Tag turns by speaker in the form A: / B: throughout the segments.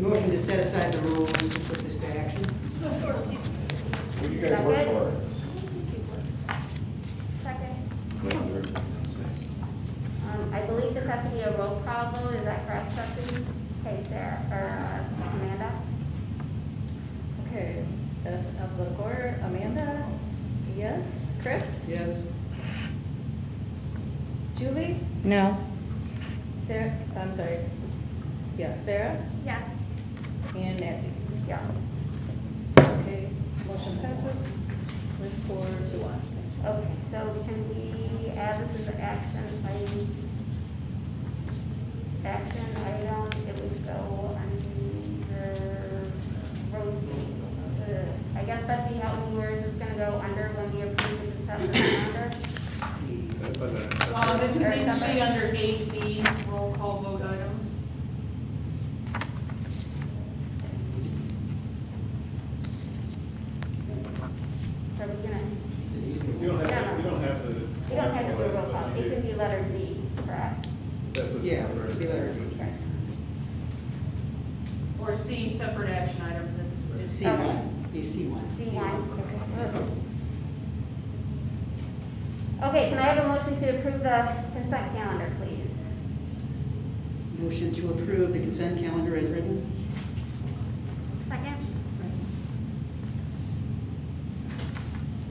A: Motion to set aside the rules and put this to action.
B: What do you guys work for?
C: Second.
B: What
C: Um, I believe this has to be a roll call vote, is that correct, Stephanie? Okay, Sarah, or uh, Amanda?
D: Okay, the alphabetical order, Amanda? Yes. Chris?
A: Yes?
D: Julie?
E: No.
D: Sarah, I'm sorry. Yes, Sarah
C: Yes.
D: and Nancy.
C: Yes.
D: Okay, motion passes with four to one. Thanks.
C: Okay, so can we add this as an action item? Action item, it would go under routine. I guess Betsy, help me, where is this gonna go under when we approve the December
F: Um, it
C: Or
F: needs to
C: somebody.
F: be under eight B, roll call vote items.
C: So are we gonna,
G: You don't have, to- you don't have to.
C: we don't have to do a roll call, it can be letter D, correct?
G: That's a-
A: Yeah, it'd be letter D.
C: Okay.
F: Or C, separate action items, it's, it's.
A: C one, yeah, C one.
C: D one. Okay, can I have a motion to approve the consent calendar, please?
A: Motion to approve the consent calendar as written.
C: Second.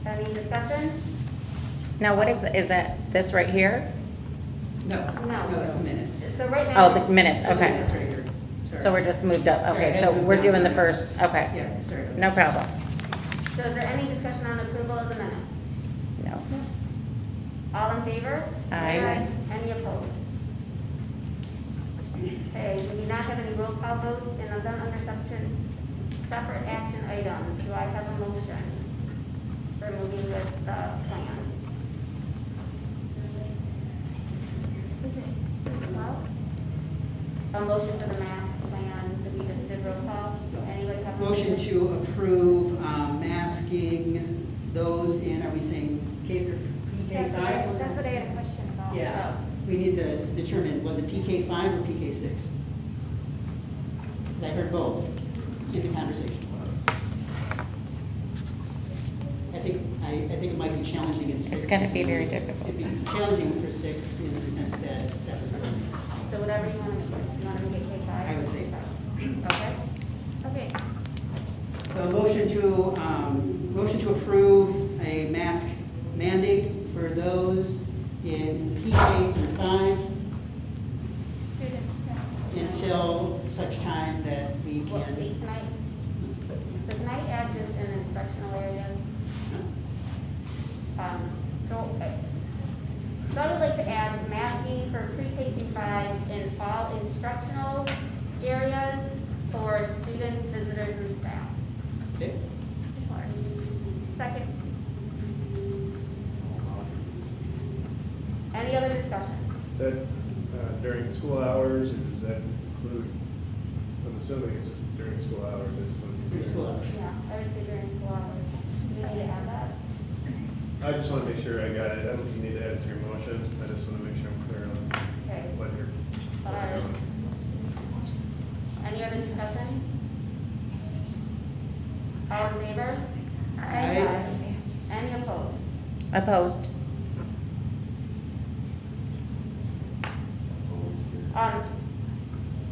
C: Any discussion?
E: Now, what is, is that this right here?
A: No,
C: No.
A: no, that's the minutes.
C: So right
E: Oh,
C: now.
E: the minutes,
A: That's
E: okay.
A: right here. Sorry.
E: So we're just moved up, okay, so
A: Sorry, I
E: we're
A: moved
E: doing the
A: down.
E: first, okay.
A: Yeah, sorry. about
E: No problem,
C: So is there any discussion on approval of the minutes?
E: no.
C: All in favor?
E: Aye.
C: Any opposed? Okay, we do not have any roll call votes and are done under section, separate action items. Do I have a motion for moving with the plan? A motion for the mask plan, that we just did roll call? Anybody have?
A: that.
C: a
A: Motion to approve um, masking those in, are we saying K through, PK five?
H: That's what I had a question about.
A: Yeah,
C: Oh.
A: we need to determine, was it PK five or PK six? 'Cause I heard both in the conversation. I think, I, I think it might be challenging in six.
E: It's gonna be very difficult.
A: It'd be challenging for six in the sense that it's a separate building.
C: So whatever you want to make, you want to make it K five?
A: I would say
C: Okay,
H: Okay,
A: So a motion to, um, motion to approve a mask mandate for those in PK through five
H: student, yeah.
A: until such time that we
C: well, wait,
A: can.
C: can I, so can I add just an instructional area? Um, so, uh, so I would like to add masking for pre-K through five in all instructional areas for students, visitors, and staff.
A: Okay?
H: Second,
C: Any other discussion?
G: Is that uh, during school hours, or does that include, I'm assuming it's just during school hours, it's when you're.
A: Through school hours.
C: Yeah, I would say during school hours, do we need to add that?
G: I just want to make sure I got it, I don't think you need to add it to your motion, I just want to make sure I'm clear on
C: Okay.
G: what you're. what
C: Uh,
G: you're doing.
C: Any other discussion? All in favor?
A: Aye.
C: Any opposed?
E: Opposed?
C: Um,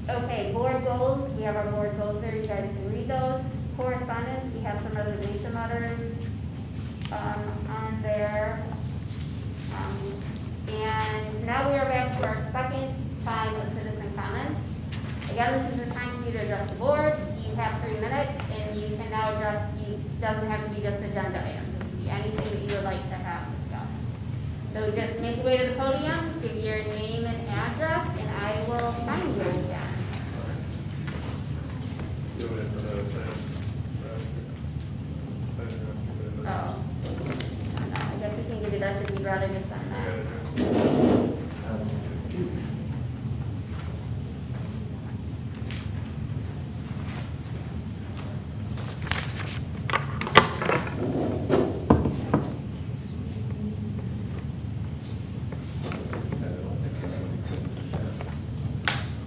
C: okay, board goals, we have our board goals there, you guys can read those. Correspondence, we have some resignation letters, um, on there. Um, And now we are back to our second time of citizen comments. Again, this is the time for you to address the board, you have three minutes, and you can now address, you, doesn't have to be just agenda items, it can be anything that you would like to have discussed. So just make your way to the podium, give your name and address, and I will oh,